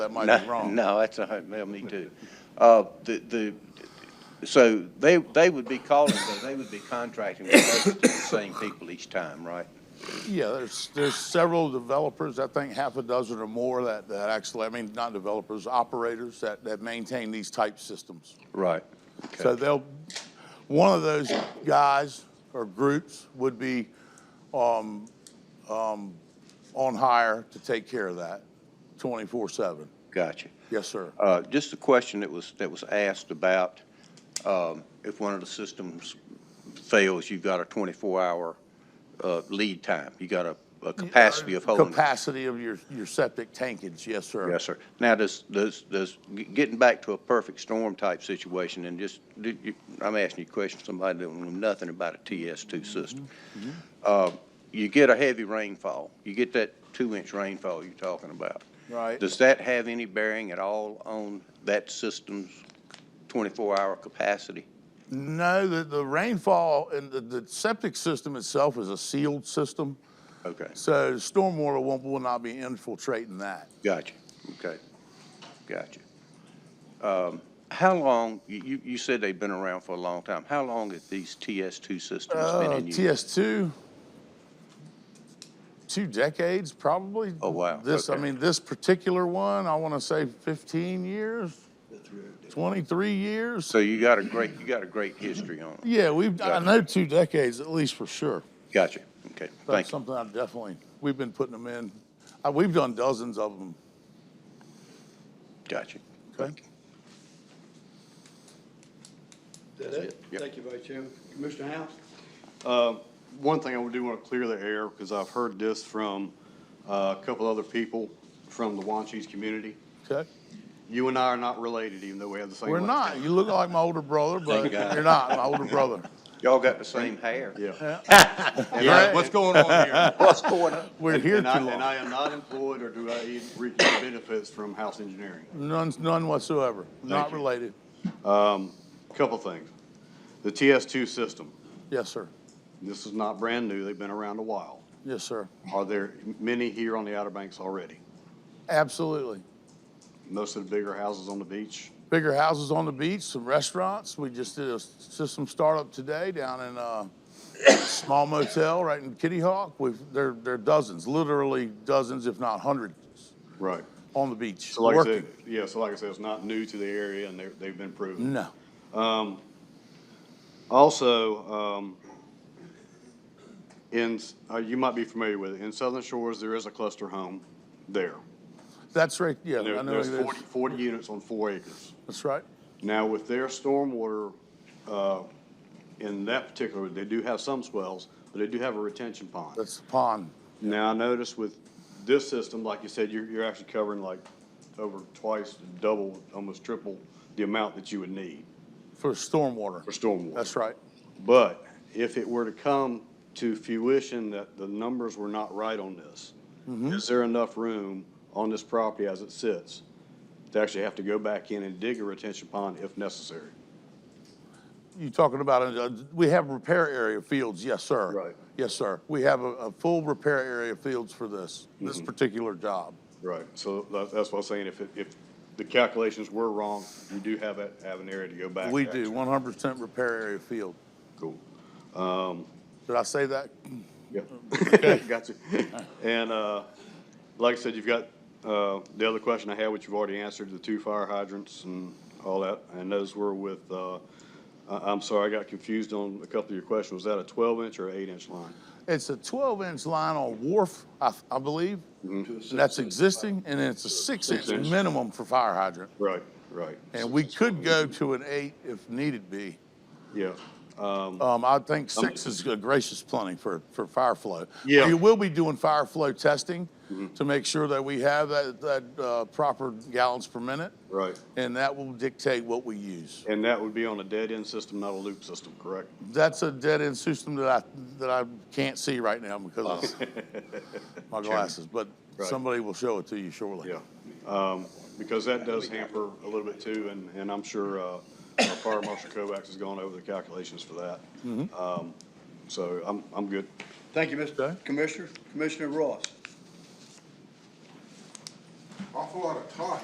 That might be No, wrong. no, that's, a- well, me too. Uh, the, the, so they, they would be calling, but they would be contracting with those same people each time, right? Yeah, there's, there's several developers, I think half a dozen or more that, that actually, I mean, not developers, operators that, that maintain these type systems. Right. So Okay. they'll, one of those guys or groups would be, um, um, on hire to take care of that twenty-four seven. Gotcha. Yes, sir. Uh, just a question that was, that was asked about, um, if one of the systems fails, you've got a twenty-four hour, uh, lead time. You got a, a capacity of holding. Capacity of your, your septic tankage, yes, sir. Yes, sir. Now, does, does, does, g- getting back to a perfect storm type situation and just, did you, I'm asking you a question, somebody that don't know nothing about a TS2 system. Uh, You get a heavy rainfall, you get that two-inch rainfall you're talking about. Right. Does that have any bearing at all on that system's 24-hour capacity? No, the, the rainfall and the, the septic system itself is a sealed system. Okay, So stormwater won't, will not be infiltrating that. gotcha, okay, gotcha. Um, How long, you- you, you said they've been around for a long time. How long have these TS2 systems been Uh, in use? TS2, two decades probably. Oh, wow. This, I Okay. mean, this particular one, I want to say 15 years, 23 years. So you got a great, you got a great history on it. Yeah, we've, I Gotcha. know two decades at least for sure. Gotcha. Okay, That's thank you. something I definitely, we've been putting them in. Uh, We've done dozens of them. Gotcha. Okay. Is that it? Yep. Thank you, Vice Chairman. Commissioner House? Uh, One thing I do want to clear the air, because I've heard this from uh, a couple other people from the Wanchese community. Okay? You and I are not related, even though we have the same We're last not. You look like my older brother, but Thank God. you're not my older brother. Y'all got the same hair. name. Yeah. Yeah, what's going on here? What's going on? We're here too And I- And long. I am not employed, or do I even reap any benefits from House Engineering? None, none whatsoever. Not you. related. Couple things. The TS2 system, Yes, sir. this is not brand new. They've been around a while. Yes, sir. Are there many here on the Outer Banks already? Absolutely. Most of the bigger houses on the beach? Bigger houses on the beach, some restaurants. We just did a system startup today down in a small motel right in Kitty Hawk. We've, there, there are dozens, literally dozens, if not hundreds, Right. on the beach, So like I working. said, yeah, so like I said, it's not new to the area and they're, they've been proven. No. Mm-hmm. Also, um, in, uh, you might be familiar with it, in Southern Shores, there is a cluster home there. That's right, yeah, There- I know it There's is. 40 40 units on four acres. That's right. Now with their stormwater, uh, in that particular, they do have some swells, but they do have a retention pond. That's the pond. Now, I noticed with this system, like you said, you're, you're actually covering like over twice, double, almost triple the amount that you would need For stormwater. for stormwater. That's right. But if it were to come to fruition that the numbers were not right on this, Mm-hmm. is there enough room on this property as it sits to actually have to go back in and dig a retention pond if necessary? You talking about, uh, we have repair area fields, yes, sir. Right. Yes, sir. We have a, a full repair area fields for this, this Mm-hmm. particular job. Right. So that, that's what I'm saying, if, it- if the calculations were wrong, you do have, a- have an area to go back. We to do, actually- one hundred percent repair area field. Cool. Did I say that? Yep. Got you. And, uh, like I said, you've got, uh, the other question I had, which you've already answered, the two fire hydrants and all that, and those were with, uh, I, I'm sorry, I got confused on a couple of your questions. Was that a twelve inch or eight inch line? It's a twelve inch line on Wharf, I, I believe. Mm-hmm. That's existing, and it's a six inch Mm-hmm. inch. minimum for fire hydrant. Right, right. And we could go to an eight if needed be. Yeah, Um, I think six is a gracious plenty for, for fire flow. Yeah. Mm-hmm. We will be doing fire flow testing to make sure that we have that, that, uh, proper gallons per minute. right. And that will dictate what we use. And that would be on a dead end system, not a loop system, correct? That's a dead end system that I, that I can't see right now because of my glasses, but Right. somebody will show it to you shortly. Yeah, um, because that does hamper a little bit too, and, and I'm sure, uh, our Fire Marshal Kovacs has gone over the calculations for that. Mm-hmm. Um, So I'm, I'm good. Thank you, Okay. Mr. Commissioner. Commissioner Ross. awful lot of talk